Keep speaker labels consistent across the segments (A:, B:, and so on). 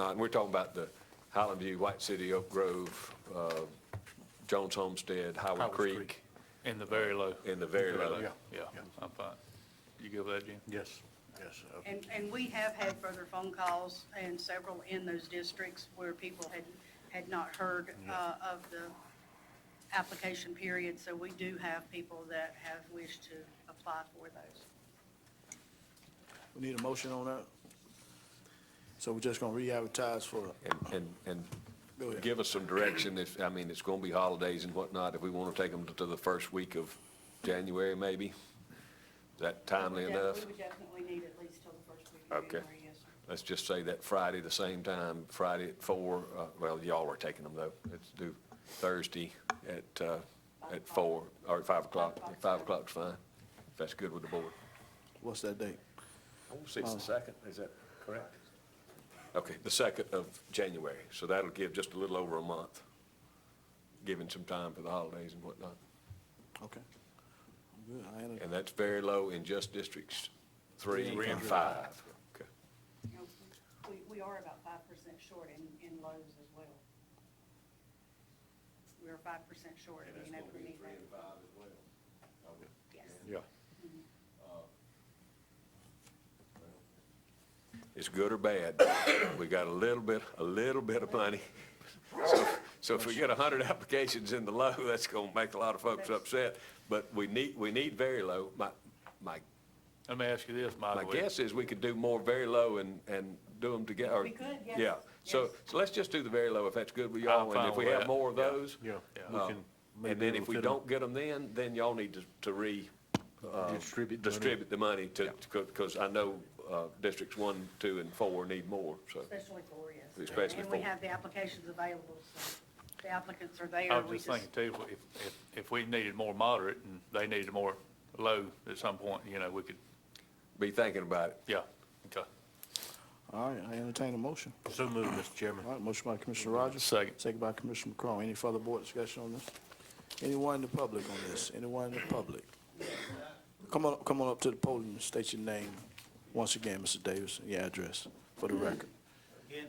A: not, and we're talking about the Highland View, White City, Oak Grove, uh, Jones Homestead, Howard
B: Howard
A: Creek,
B: Creek.
C: In the very low.
A: in the very low.
B: Yeah.
C: Yeah,
B: yeah.
C: I thought, you give that, Jim?
B: Yes, yes. uh,
D: And, and we have had further phone calls and several in those districts where people had, had not heard uh, of the application period. So we do have people that have wished to apply for those.
E: We need a motion on that? So we're just gonna re-advertise for,
A: And, and,
E: Go
A: and
E: ahead.
A: give us some direction if, I mean, it's gonna be holidays and whatnot, if we wanna take them to the first week of January, maybe? Is that timely
D: We would def-
A: enough?
D: We would definitely need at least till the first week of
A: Okay.
D: January, yes, sir.
A: Let's just say that Friday, the same time, Friday at four, uh, well, y'all are taking them though. Let's do Thursday at, uh, at four, or at five o'clock. Five o'clock's fine, if that's good with the board.
E: what's that date?
A: I want to say Oh, it's the second, is that correct? Okay, the second of January, so that'll give just a little over a month, giving some time for the holidays and whatnot.
E: Okay. Good, I enter-
A: And that's very low in just districts three and five. Okay.
D: You know, We, we are about five percent short in, in lows as well. We're five percent short of being able to meet that. Yes.
B: Yeah.
A: It's good or bad, we got a little bit, a little bit of money. So- So if we get a hundred applications in the low, that's gonna make a lot of folks upset, but we need, we need very low. My, my
C: Let me ask you this,
A: My
C: Michael.
A: guess is we could do more very low and, and do them together.
D: We could, yes,
A: Yeah, so,
D: yes.
A: so let's just do the very low if that's good with
C: I'm
A: y'all, and if
C: fine
A: we
C: with
A: have
C: that,
A: more of
C: yeah,
A: those.
B: yeah.
C: Yeah.
B: We
A: uh,
B: can maybe
A: And then
B: be able
A: if
B: to
A: we
B: fit 'em.
A: don't get them then, then y'all need to, to re, uh,
B: Distribute the money.
A: distribute the money to, because I know, uh, districts one, two, and four need more, so.
D: Especially for, yes.
A: Especially
D: And we
A: for-
D: have the applications available, so the applicants are there.
C: I was
D: we
C: just thinking too, if, if, if we needed more moderate and they needed more low at some point, you know, we could,
A: Be thinking about it.
C: yeah, okay.
E: All right, I entertain a motion.
B: So moved, Mr. Chairman.
E: All right, motion by Commissioner Rogers.
C: Second.
E: Second by Commissioner McCrone. Any further board discussion on this? Anyone in the public on this? Anyone in the public? Come on, come on up to the podium and state your name once again, Mr. Davis, and your address for the record.
F: Again,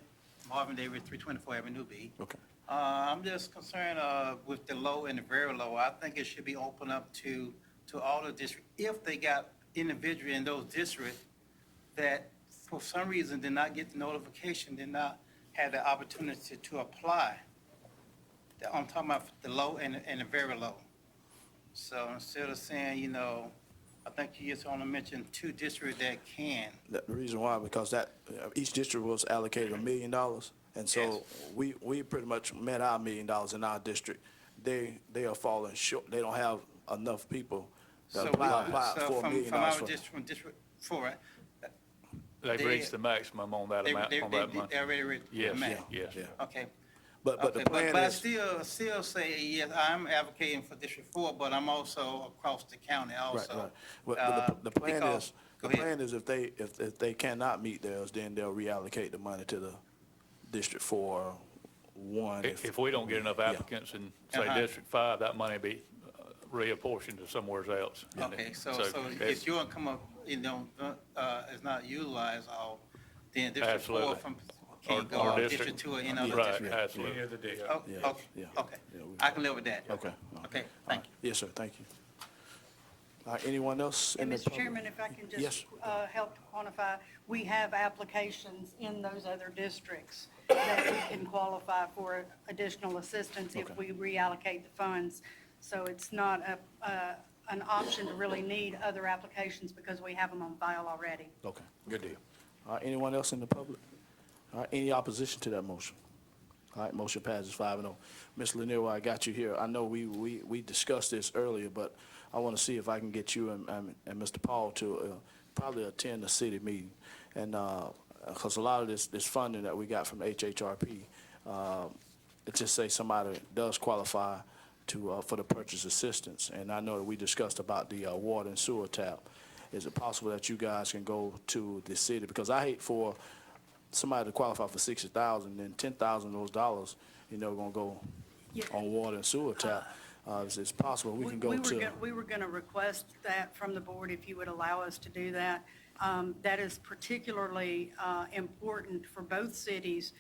F: Marvin Davis, 324 Avenue B.
E: Okay.
F: Uh, I'm just concerned uh, with the low and the very low. I think it should be open up to, to all the districts. If they got individual in those districts that for some reason did not get the notification, did not have the opportunity to apply. I'm talking about the low and, and the very low. So instead of saying, you know, I think you just want to mention two districts that can.
E: That- The reason why, because that, uh, each district was allocated a million dollars, and so we, we pretty much met our million dollars in our district. They, they are falling short, they don't have enough people to
F: So we-
E: apply, apply
F: so
E: for a
F: from-
E: million
F: from
E: dollars.
F: our
E: for-
F: district- From district four, right?
C: They've
F: They-
C: reached the maximum on that
F: They,
C: amount,
F: they,
C: on
F: they,
C: that money.
F: they already read
C: Yes,
F: the map.
C: yeah.
E: Yeah.
F: Okay.
E: But, but
F: Okay,
E: the plan
F: But I
E: is,
F: still, still say, yes, I'm advocating for District Four, but I'm also across the county
E: right,
F: also.
E: right. But but the,
F: Uh,
E: the plan
F: because-
E: is,
F: go
E: the
F: ahead.
E: plan is if they, if, if they cannot meet theirs, then they'll reallocate the money to the District Four, one.
C: If, if we don't get enough
E: Yeah.
C: applicants in, say,
F: Uh-huh.
C: District Five, that money be uh, reapportioned to somewhere else.
F: Okay, so, so
C: it's-
F: if your income, of, you know, uh, is not utilized all, then District Four
C: Absolutely.
F: from,
C: Our-
F: can go
C: our
F: on
C: district-
F: District Two or any other
C: Right,
F: district.
C: absolutely.
F: Oh,
E: Yeah,
F: Okay,
E: yeah,
F: okay.
E: yeah, we-
F: I can live with that.
E: Okay.
F: Okay,
E: All
F: thank
E: right.
F: you.
E: Yes, sir, thank you. All right, anyone else? in
D: And
E: the
D: Mr.
E: public?
D: Chairman, if I can
E: Yes.
D: just uh, help to quantify, we have applications in those other districts that we can qualify for additional assistance if we
E: Okay.
D: reallocate the funds. So it's not a, uh, an option to really need other applications because we have them on file already.
E: Okay.
B: Good deal.
E: All right, anyone else in the public? All right, any opposition to that motion? All right, motion passes five and oh. Ms. Lanier, while I got you here, I know we, we, we discussed this earlier, but I want to see if I can get you and, and, and Mr. Paul to uh, probably attend the city meeting. And, uh 'cause because a lot of this, this funding that we got from HHRP, uh, it just say somebody does qualify to, uh, for the purchase assistance. And I know that we discussed about the, uh, water and sewer tap. Is it possible that you guys can go to the city? Because I hate for somebody to qualify for sixty thousand, then ten thousand of those dollars, you know, gonna go
D: Yeah.
E: on water and sewer tap. Uh, it's, it's possible, we can go
D: were
E: to,
D: gon- We were going to request that from the board if you would allow us to do that. Um, That is particularly uh, important for both cities